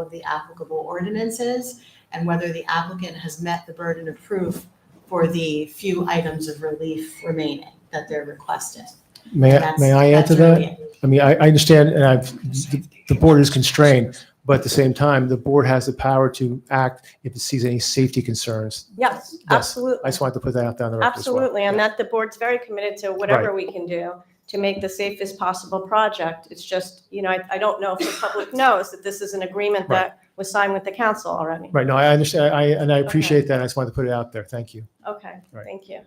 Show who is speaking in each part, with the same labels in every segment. Speaker 1: of the applicable ordinances and whether the applicant has met the burden of proof for the few items of relief remaining that they're requesting.
Speaker 2: May, I-
Speaker 1: That's-
Speaker 2: may I add
Speaker 1: that's
Speaker 2: to that?
Speaker 1: really it.
Speaker 2: I mean, I, I understand, and I've, the- the board is constrained, but at the same time, the board has the power to act if it sees any safety concerns.
Speaker 3: Yes,
Speaker 2: Yes, I
Speaker 3: absolutely.
Speaker 2: just wanted to put that out there on the record as well.
Speaker 3: Absolutely. And that the board's very committed to whatever we can do to make the safest possible project. It's just, you know, I, I don't know if the public knows that this is an agreement
Speaker 2: Right.
Speaker 3: that was signed with the council already.
Speaker 2: Right, no, I understand, I, and I appreciate that, I just wanted to put it out there, thank you.
Speaker 3: Okay,
Speaker 2: Right.
Speaker 3: thank you.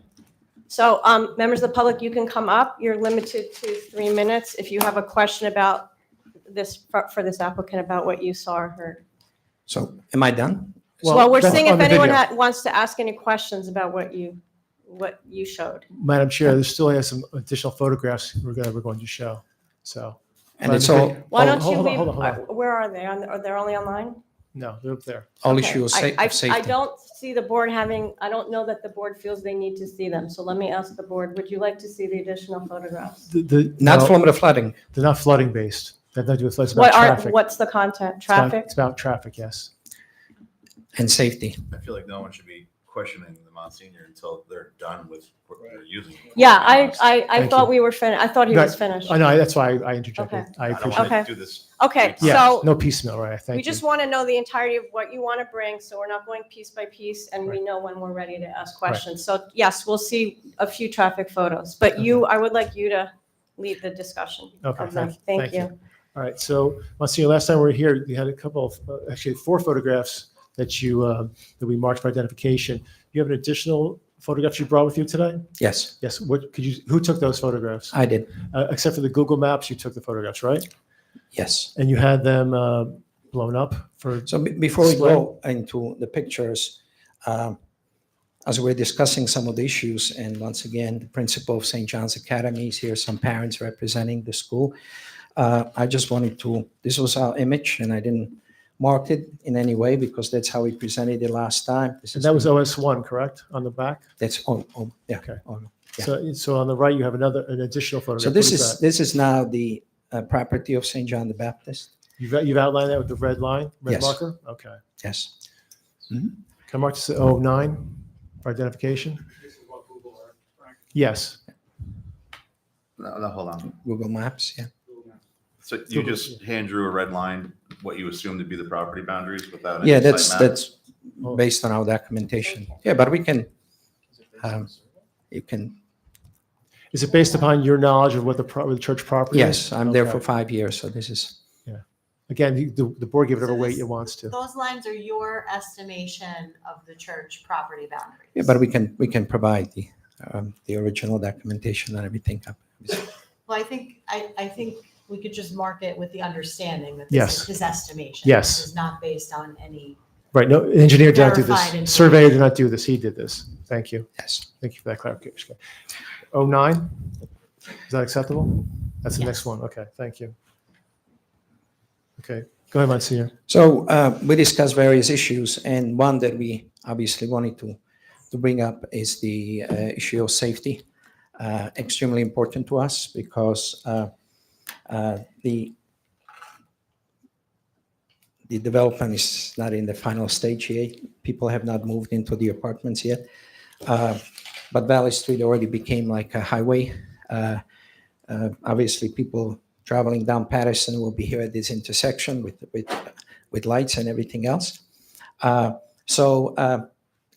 Speaker 3: So, um, members of the public, you can come up. You're limited to three minutes if you have a question about this, for for this applicant about what you saw or heard.
Speaker 4: So am I done?
Speaker 2: Well,
Speaker 3: Well, we're
Speaker 2: that's
Speaker 3: seeing if
Speaker 2: on the
Speaker 3: anyone
Speaker 2: video.
Speaker 3: had- wants to ask any questions about what you, what you showed.
Speaker 2: Madam Chair, there still has some additional photographs we're gonna, we're going to show, so,
Speaker 4: And
Speaker 2: Madam
Speaker 4: it's
Speaker 2: Chair.
Speaker 4: all,
Speaker 3: Why
Speaker 2: Hold-
Speaker 3: don't you
Speaker 2: hold on,
Speaker 3: leave,
Speaker 2: hold on, hold on.
Speaker 3: uh, where are they? On- Are they only online?
Speaker 2: no, they're up there.
Speaker 4: all
Speaker 3: Okay.
Speaker 4: issue of
Speaker 3: I-
Speaker 4: sa-
Speaker 3: I-
Speaker 4: of
Speaker 3: I
Speaker 4: safety.
Speaker 3: don't see the board having, I don't know that the board feels they need to see them. So let me ask the board, would you like to see the additional photographs?
Speaker 2: The- The,
Speaker 4: Not
Speaker 2: no,
Speaker 4: from the flooding.
Speaker 2: they're not flooding based, that have nothing to do with flood, it's about
Speaker 3: What are,
Speaker 2: traffic.
Speaker 3: what's the content?
Speaker 2: It's about-
Speaker 3: Traffic?
Speaker 2: It's about traffic, yes.
Speaker 4: And safety.
Speaker 5: I feel like no one should be questioning the Monsignor until they're done with what they're using. Um,
Speaker 3: Yeah, I, I, I
Speaker 2: Thank
Speaker 3: thought
Speaker 2: you.
Speaker 3: we were finished. I thought he
Speaker 2: Right.
Speaker 3: was finished.
Speaker 2: I know, that's why I interjected, I
Speaker 5: I don't
Speaker 2: appreciate,
Speaker 5: want
Speaker 3: Okay.
Speaker 5: to do this.
Speaker 3: Okay,
Speaker 5: Yeah,
Speaker 2: yeah,
Speaker 3: so
Speaker 2: no piecemeal, right, thank you.
Speaker 3: we just want to know the entirety of what you want to bring, so we're not going piece by piece, and we know when we're ready to ask questions. So yes, we'll see a few traffic photos, but you, I would like you to lead the discussion
Speaker 2: Okay,
Speaker 3: of them.
Speaker 2: thank-
Speaker 3: Thank
Speaker 2: thank
Speaker 3: you.
Speaker 2: All right, so Monsignor, last time we were here, you had a couple of, uh, actually four photographs that you, uh, that we marked for identification. You have an additional photograph you brought with you today?
Speaker 4: Yes,
Speaker 2: Yes, what, could you, who took those photographs?
Speaker 4: I did.
Speaker 2: Uh, Except for the Google Maps, you took the photographs, right?
Speaker 4: Yes.
Speaker 2: And you had them uh, blown up for,
Speaker 4: So be- before we go into the pictures, um, as we're discussing some of the issues, and once again, the principal of St. John's Academy is here, some parents representing the school. Uh, I just wanted to, this was our image, and I didn't mark it in any way because that's how we presented it last time. This
Speaker 2: and
Speaker 4: is
Speaker 2: that was
Speaker 4: the-
Speaker 2: OS1, correct, on the back?
Speaker 4: That's, oh, oh, yeah.
Speaker 2: Okay.
Speaker 4: oh, no. Yeah.
Speaker 2: So, so on the right, you have another, an additional photograph.
Speaker 4: So
Speaker 2: What
Speaker 4: this is,
Speaker 2: that?
Speaker 4: this is now the uh, property of St. John the Baptist.
Speaker 2: You've you've outlined that with the red line, red
Speaker 4: Yes.
Speaker 2: marker? Okay.
Speaker 4: Yes.
Speaker 2: Can I mark this as 09 for identification? Yes.
Speaker 5: No, no, hold on.
Speaker 4: Google Maps, yeah.
Speaker 5: So you just hand drew a red line, what you assume to be the property boundaries without. any
Speaker 4: Yeah, that's,
Speaker 5: site map?
Speaker 4: that's based on our documentation. Yeah, but we can, um, you can,
Speaker 2: Is it based upon your knowledge of what the, pro- the church property is?
Speaker 4: yes, I'm there for
Speaker 2: Okay.
Speaker 4: five years, so this is,
Speaker 2: Again, the- the, the board give it
Speaker 1: So
Speaker 2: whatever weight
Speaker 1: this-
Speaker 2: it wants to.
Speaker 1: Those lines are your estimation of the church property boundaries.
Speaker 4: yeah, but we can, we can provide the, um, the original documentation and everything. up.
Speaker 1: Well, I think, I, I think we could just mark it with the understanding that this
Speaker 2: Yes.
Speaker 1: is his estimation.
Speaker 2: Yes.
Speaker 1: This is not based on any,
Speaker 2: Right, no, engineer did not do
Speaker 1: Verified
Speaker 2: this.
Speaker 1: and-
Speaker 2: Surveyor did not do this. He did this. Thank you.
Speaker 4: Yes,
Speaker 2: Thank you for that clarification. 09? Is that acceptable? That's the next
Speaker 1: Yes.
Speaker 2: one. Okay, thank you. Okay, go ahead, Monsignor.
Speaker 4: so, uh, we discussed various issues and one that we obviously wanted to, to bring up is the, uh, issue of safety. uh, extremely important to us because uh, uh, the the development is not in the final stage yet. People have not moved into the apartments yet. Uh, But Valley Street already became like a highway. Uh, uh, Obviously, people traveling down Patterson will be here at this intersection with, with, with lights and everything else. Uh, So uh,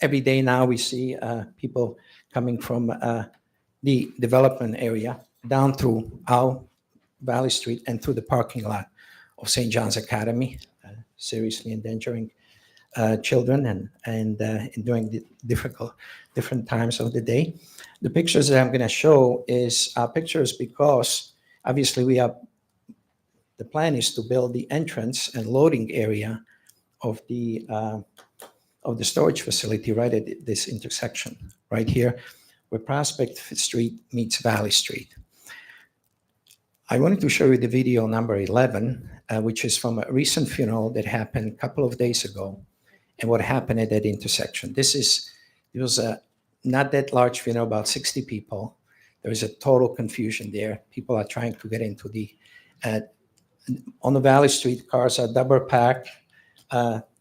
Speaker 4: every day now, we see uh, people coming from uh, the development area down through our Valley Street and through the parking lot of St. John's Academy, uh, seriously endangering uh, children and and uh, and during the difficult different times of the day. The pictures that I'm going to show is uh, pictures because obviously we are. The plan is to build the entrance and loading area of the uh, of the storage facility right at this intersection right here where Prospect Street meets Valley Street. I wanted to show you the video number 11, uh, which is from a recent funeral that happened a couple of days ago, and what happened at that intersection. This is, it was a not that large funeral, about 60 people. There is a total confusion there. People are trying to get into the, uh, on the Valley Street, cars are double packed. Uh,